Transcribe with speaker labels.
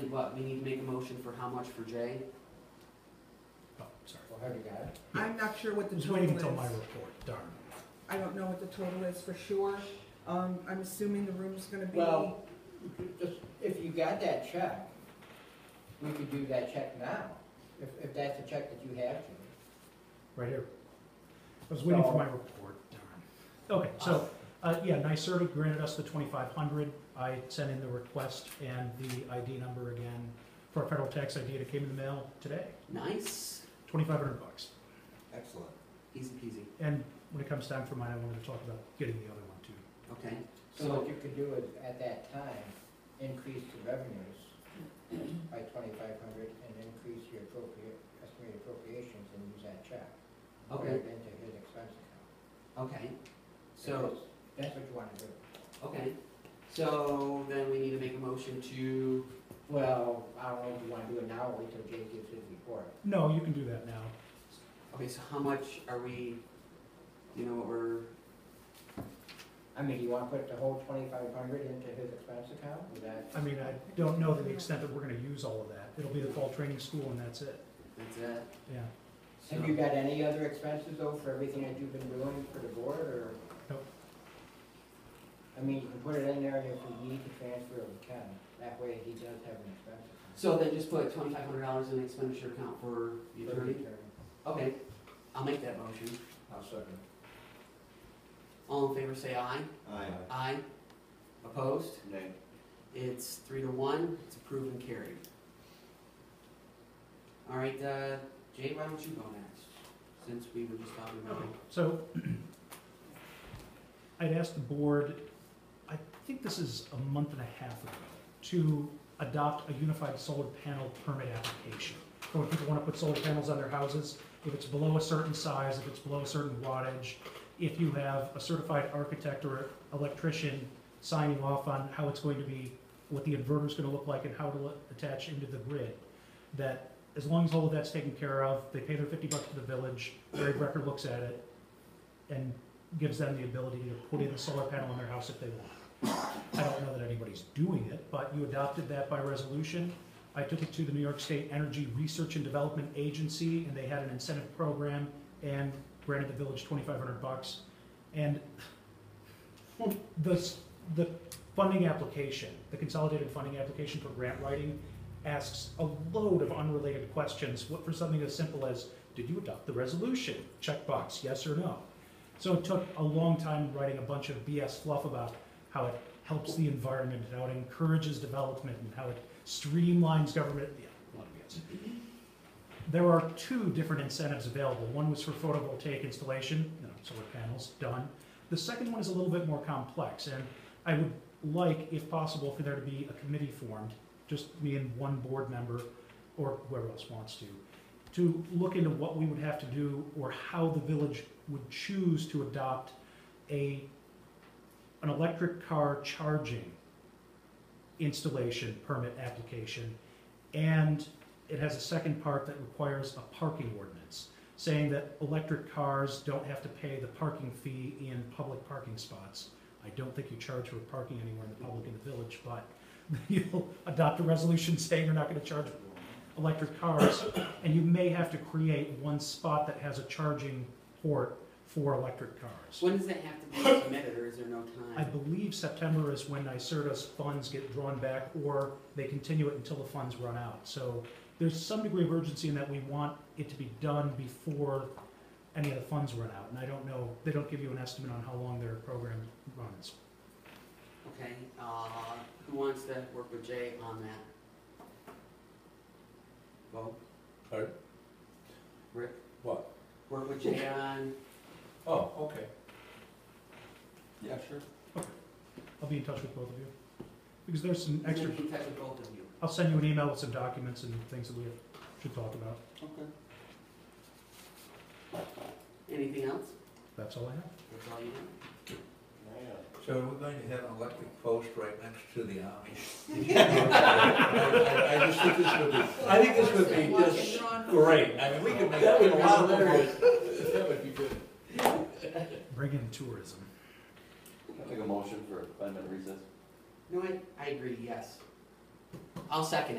Speaker 1: And what, we need to make a motion for how much for Jay?
Speaker 2: Oh, sorry.
Speaker 3: Well, have you got it?
Speaker 4: I'm not sure what
Speaker 2: I
Speaker 4: the
Speaker 2: was
Speaker 4: total
Speaker 2: waiting until my
Speaker 4: is.
Speaker 2: report, darn.
Speaker 4: I don't know what the total is for sure. Um, I'm assuming the room's gonna be,
Speaker 3: Well- Just, if you got that check, we could do that check now, if, if that's a check that you have to.
Speaker 2: Right here. I was waiting for
Speaker 3: So-
Speaker 2: my report, darn. Okay, so, uh, yeah, NYSERDA granted us the twenty-five hundred. I sent in the request and the ID number again for our federal tax ID. It came in the mail today,
Speaker 1: Nice,
Speaker 2: twenty-five hundred bucks.
Speaker 3: Excellent.
Speaker 1: easy peasy,
Speaker 2: And when it comes time for mine, I wanted to talk about getting the other one too.
Speaker 1: okay.
Speaker 3: So what you could do is, at that time, increase the revenues by twenty-five hundred and increase your appropriate, estimated appropriations and use that check. and Put
Speaker 1: Okay.
Speaker 3: it into his expense account.
Speaker 1: Okay,
Speaker 3: If
Speaker 1: so,
Speaker 3: it's- That's what you wanna do.
Speaker 1: okay, so then we need to make a motion to,
Speaker 3: Well, I don't know if you wanna do it now or wait till Jay gives his report.
Speaker 2: No, you can do that now.
Speaker 1: okay, so how much are we, you know, what we're,
Speaker 3: I mean, you wanna put the whole twenty-five hundred into his expense account, is that?
Speaker 2: I mean, I don't know to the extent that we're gonna use all of that. It'll be the fall training school and that's it,
Speaker 1: that's it?
Speaker 2: yeah.
Speaker 1: So-
Speaker 3: Have you got any other expenses though for everything that you've been doing for the board or?
Speaker 2: Nope.
Speaker 3: I mean, you can put it in there and if we need to transfer, we can. That way he does have an expense. account.
Speaker 1: So then just put twenty-five hundred dollars in the expenditure account for the
Speaker 3: For the
Speaker 1: attorney? Okay, I'll make that motion.
Speaker 3: I'll second.
Speaker 1: All in favor, say aye.
Speaker 5: Aye.
Speaker 1: Aye. Opposed?
Speaker 5: Nay.
Speaker 1: It's three to one, it's approved and carried. All right, uh, Jay, why don't you go next, since we were just talking about it.
Speaker 2: So I'd asked the board, I think this is a month and a half ago, to adopt a unified solar panel permit application. For when people want to put solar panels on their houses, if it's below a certain size, if it's below a certain wattage, if you have a certified architect or electrician signing off on how it's going to be, what the inverter's going to look like and how to attach into the grid, that as long as all of that's taken care of, they pay their fifty bucks to the village, Larry Brecker looks at it, and gives them the ability to put in a solar panel on their house if they want. I don't know that anybody's doing it, but you adopted that by resolution. I took it to the New York State Energy Research and Development Agency, and they had an incentive program and granted the village twenty-five hundred bucks. And the, s- the funding application, the consolidated funding application for grant writing asks a load of unrelated questions, what for something as simple as, did you adopt the resolution? Checkbox, yes or no. So it took a long time writing a bunch of BS fluff about how it helps the environment and how it encourages development and how it streamlines government. Yeah, a lot of BS. There are two different incentives available. One was for photovoltaic installation, you know, solar panels, done. The second one is a little bit more complex, and I would like, if possible, for there to be a committee formed, just me and one board member, or whoever else wants to, to look into what we would have to do or how the village would choose to adopt a, an electric car charging installation permit application. And it has a second part that requires a parking ordinance, saying that electric cars don't have to pay the parking fee in public parking spots. I don't think you charge for parking anywhere in the public in the village, but you'll adopt a resolution saying you're not gonna charge for electric cars, and you may have to create one spot that has a charging port for electric cars.
Speaker 1: When does that have to be submitted, or is there no
Speaker 2: I
Speaker 1: time?
Speaker 2: believe September is when NYSERDA's funds get drawn back, or they continue it until the funds run out. So there's some degree of urgency in that we want it to be done before any of the funds run out. And I don't know, they don't give you an estimate on how long their program runs.
Speaker 1: Okay, uh, who wants to work with Jay on that? Bo?
Speaker 5: Pardon?
Speaker 1: Rick,
Speaker 5: What?
Speaker 1: work with Jay on,
Speaker 5: Oh, okay. Yeah, sure.
Speaker 2: I'll be in touch with both of you. Because there's some
Speaker 1: he's
Speaker 2: extra,
Speaker 1: gonna be in touch with both of you.
Speaker 2: I'll send you an email with some documents and things that we should talk about.
Speaker 1: Okay. Anything else?
Speaker 2: That's all I have.
Speaker 1: That's all you have?
Speaker 6: So we're going to have an electric post right next to the Amish. I I just think this would be, I think this would be just great. I mean, we could make.
Speaker 5: That would be
Speaker 6: hilarious. That would be good.
Speaker 2: Bring in tourism.
Speaker 5: Take a motion for five minute recess.
Speaker 1: No, I, I agree, yes. I'll second it.